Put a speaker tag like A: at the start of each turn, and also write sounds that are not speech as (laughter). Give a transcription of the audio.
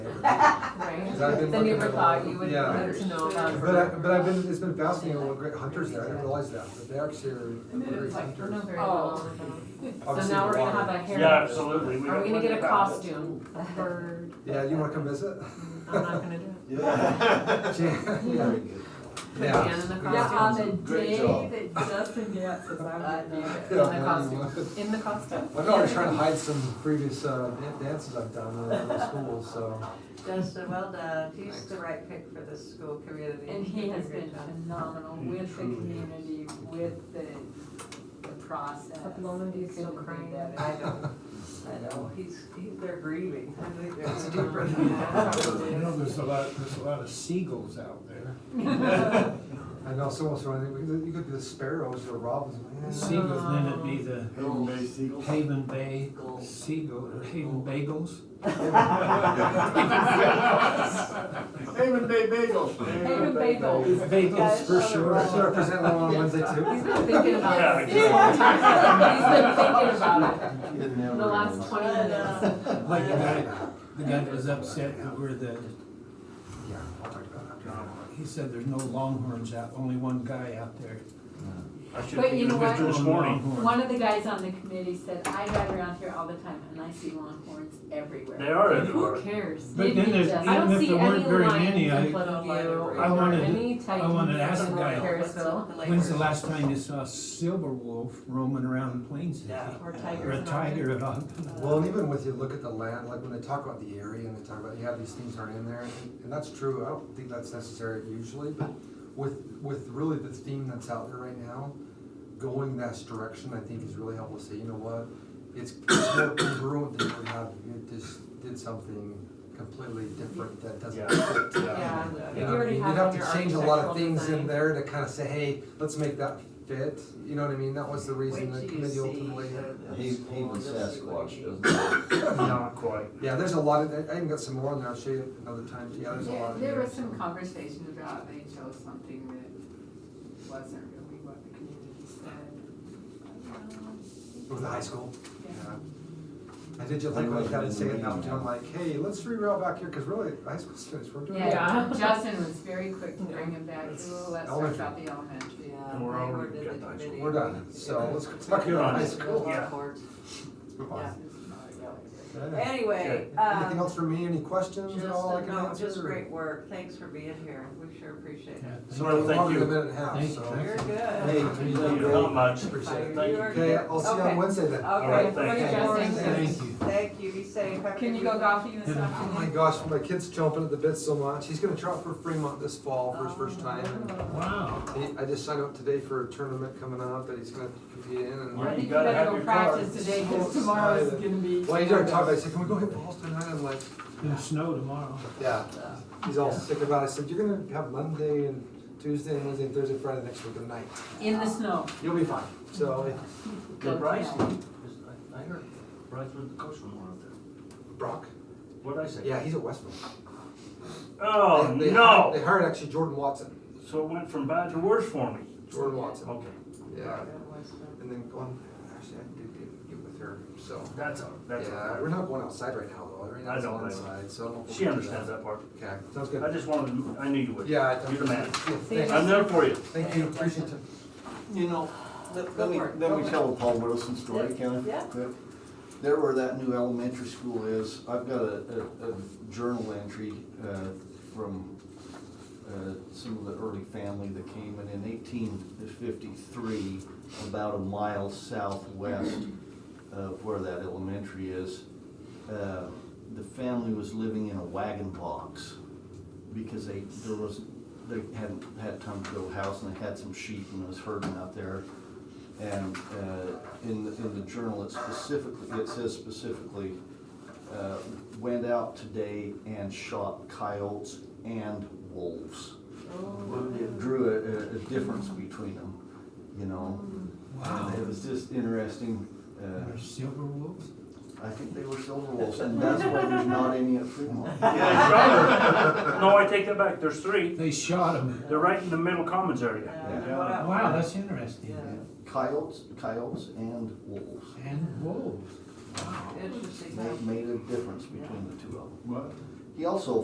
A: 'cause I've been
B: Then
A: looking
B: you
A: at.
B: ever
A: a
B: thought
A: lot-
B: you would
A: yeah.
B: want to know about.
A: But I, but I've been, it's been fascinating, what great hunters there, I didn't realize that, but they actually are great hunters.
B: Oh. So
A: Obviously,
B: now we're gonna
A: water.
B: have a hair.
C: Yeah, absolutely. We
B: Are we gonna
C: got plenty
B: get a
C: of apples. (laughs)
B: costume? A bird?
A: Yeah, you wanna come
B: (laughs)
A: visit? (laughs)
B: I'm not gonna do it.
A: Yeah.
B: Yeah,
A: Yeah.
B: in the
D: Yeah, on
B: costume.
D: the
E: Great
D: day
E: job.
D: that Justin gets it, I would be there.
A: Yeah,
B: In the
A: man, you (laughs)
B: costume.
A: would.
B: In the costume.
A: I'm already trying to hide some previous, uh, dan- dances I've done in the school, so.
F: Justin, well done. He's the right pick for the school community.
D: And he has
F: Great
D: been
F: job.
D: phenomenal with the community, with the, the process.
B: At the moment, he's still
D: Couldn't do
B: crying.
D: that.
F: I know, I know. He's, he's, they're grieving. I think
B: I
F: they're
B: know.
F: (laughs) deeper than that.
G: You know, there's a lot, there's a lot of seagulls out there.
A: I know someone's running, we could- you could do the sparrows or robins, man.
G: Seagulls, then it'd be the
E: Haven Bay Seagulls.
G: Haven Bay Seagull, or Haven Bagels.
E: Haven Bay Bagels.
D: Haven bagels.
G: Bagels for
A: Sure, sure,
G: sure.
A: present one on Wednesday
B: He's
A: too.
B: (laughs) been thinking
C: Yeah,
B: about it. He's been
C: exactly.
B: thinking about it the last twenty
F: uh,
B: minutes.
G: Like the guy, the guy that was upset that we're the,
A: Yeah, I'll talk about it.
G: he said there's no longhorns out, only one guy out there.
C: I should
D: But
C: be
D: you know
C: in
D: what?
C: this
G: One
C: morning.
G: longhorn.
D: One of the guys on the committee said, I drive around here all the time and I see longhorns everywhere.
C: They are everywhere.
D: Who cares?
G: But
D: It-
G: then
D: it
G: there's-
D: just-
G: I
B: I don't
G: Even if
B: see
G: there weren't
B: any
G: very
B: lions
G: many, I-
B: in Platteville or
G: I wanted-
B: any
G: I wanted to ask
B: titans
G: the
B: in
G: guy,
B: Harrisville.
G: When's the last time you saw a silver wolf roaming around Plain City?
F: Yeah.
D: Or
G: Or
D: tigers.
G: a
D: and all
G: tiger
D: that.
G: at all?
A: Well, and even with you look at the land, like when they talk about the area and they talk about, yeah, these things aren't in there, and- and that's true, I don't think that's necessary usually, but with, with really the theme that's out there right now, going that direction, I think is really helpful to say, you know what? It's it's more congruent than you have, you just did something completely different that doesn't.
B: Yeah,
A: You
B: you
A: know,
B: already
A: you'd
B: have
A: have
B: in your
A: to change a lot of
B: architectural
A: things in
B: design.
A: there to kind of say, hey, let's make that fit, you know what I mean? That was the
F: Wait
A: reason the
F: till you
A: committee
F: see.
A: ultimately.
F: the-
E: He, even Sasquatch doesn't.
C: Not quite.
A: Yeah, there's a lot of, I even got some more on there, I'll show you another time, yeah, there's a lot
D: There-
A: in
D: There
A: there,
D: was some
A: so.
D: conversation about they chose something that wasn't really what the community said.
A: With the high school,
D: Yeah.
A: yeah. I did just like when I had to say it now, too, I'm
E: Yeah.
A: like, hey, let's reroute back here, cause really, high school students, we're doing.
D: Yeah,
B: Yeah.
D: Justin was very quick to bring him back,
A: It's
D: ooh, let's talk
A: elementary.
D: about the elementary.
F: Yeah,
C: And we're
F: they
C: already
F: were did
C: got
F: the
C: the high school.
F: committee.
A: We're done, so let's go talk
C: Good
A: about
C: on
A: high
C: it.
A: school.
C: Yeah.
A: Let's move on.
F: Yeah.
A: Okay.
F: Anyway,
A: Anything
F: um,
A: else for me, any questions
F: just,
A: at all I can
F: no,
A: answer?
F: just
A: or-
F: great work. Thanks for being here. We sure appreciate it.
C: Sorry,
A: Longer
C: thank
A: than a
C: you.
A: minute and a half,
G: Thank-
A: so.
G: thank
F: You're good.
A: Hey,
E: you
C: Yeah,
E: done
C: Not much.
A: Appreciate it.
C: Thank you.
A: Okay, I'll see you
F: Okay.
A: on Wednesday then.
C: All right,
F: Okay,
C: thank
F: looking
B: you.
F: forward to
B: Thank
F: it.
G: Thank you.
F: Thank you, be safe. Have
B: Can
F: a good
B: you go
F: weekend.
B: golfing this
G: Yeah.
A: Oh my
B: afternoon?
A: gosh, my kid's jumping at the bit so much. He's gonna try out for Fremont this fall for his first time. and
G: Wow.
A: he- I just signed up today for a tournament coming up that he's gonna compete in and.
C: Where
B: I
C: you
B: think you
C: gotta have
B: better go
C: your car.
B: practice today,
A: Oh,
B: cause tomorrow's
A: sorry.
B: gonna be.
A: Well, he started talking about it. He said, can we go hit balls tonight? I'm like,
G: Gonna snow tomorrow.
A: yeah. He's all sick about it. I said, you're gonna have Monday and Tuesday and Wednesday and Thursday, Friday next week of night.
B: In the snow.
A: You'll be fine. So
C: Did Bryce, I I heard Bryce was the coach from one of them.
A: Brock,
C: What'd I say?
A: yeah, he's at Westville.
C: Oh,
A: They- they hired-
C: no.
A: They hired actually Jordan Watson.
C: So it went from bad to worse for me.
A: Jordan Watson,
C: Okay,
A: yeah.
F: Western.
A: And then going, actually, I did get- get with her, so.
C: that's, all- that's, all
A: Yeah,
C: right.
A: we're not going outside right now, though. Right now
C: I
A: it's
C: don't
A: all
C: blame
A: inside, so. I don't know if
C: she
A: we'll do
C: understands that part.
A: Okay, sounds
C: I
A: good.
C: just wanted, to- I knew you would.
A: Yeah. I-
C: You're the man.
A: Thank you.
C: I'm there
A: (laughs)
C: for you.
A: Thank you, appreciate it.
E: You know, let
F: Go
E: let me,
F: for it.
E: let
F: Go
E: me tell a Paul Wilson story, can I?
F: Yeah.
E: Quick. There where that new elementary school is, I've got a, a, a journal entry, uh, from, uh, some of the early family that came in in eighteen fifty-three, about a mile southwest of where that elementary is. Uh, The family was living in a wagon box because they, there was, they hadn't had time to build a house and they had some sheep and it was herding out there. And uh, in, the- in the journal, it specifically, it says specifically, uh, went out today and shot coyotes and wolves. It
F: Oh.
E: it drew a, a- a difference between them, you know?
G: Wow.
E: It was just interesting. uh,
G: There's silver wolves?
E: I think they were silver wolves, and that's why there's not any at Fremont.
C: No, I take that back. There's three.
G: They shot him.
C: They're right in the middle commons area.
F: Yeah. What up?
G: Wow, that's interesting.
E: Coyotes, coyotes and wolves.
G: And wolves. Wow.
F: Interesting.
E: Made, made a difference between the two of them.
G: What?
E: He also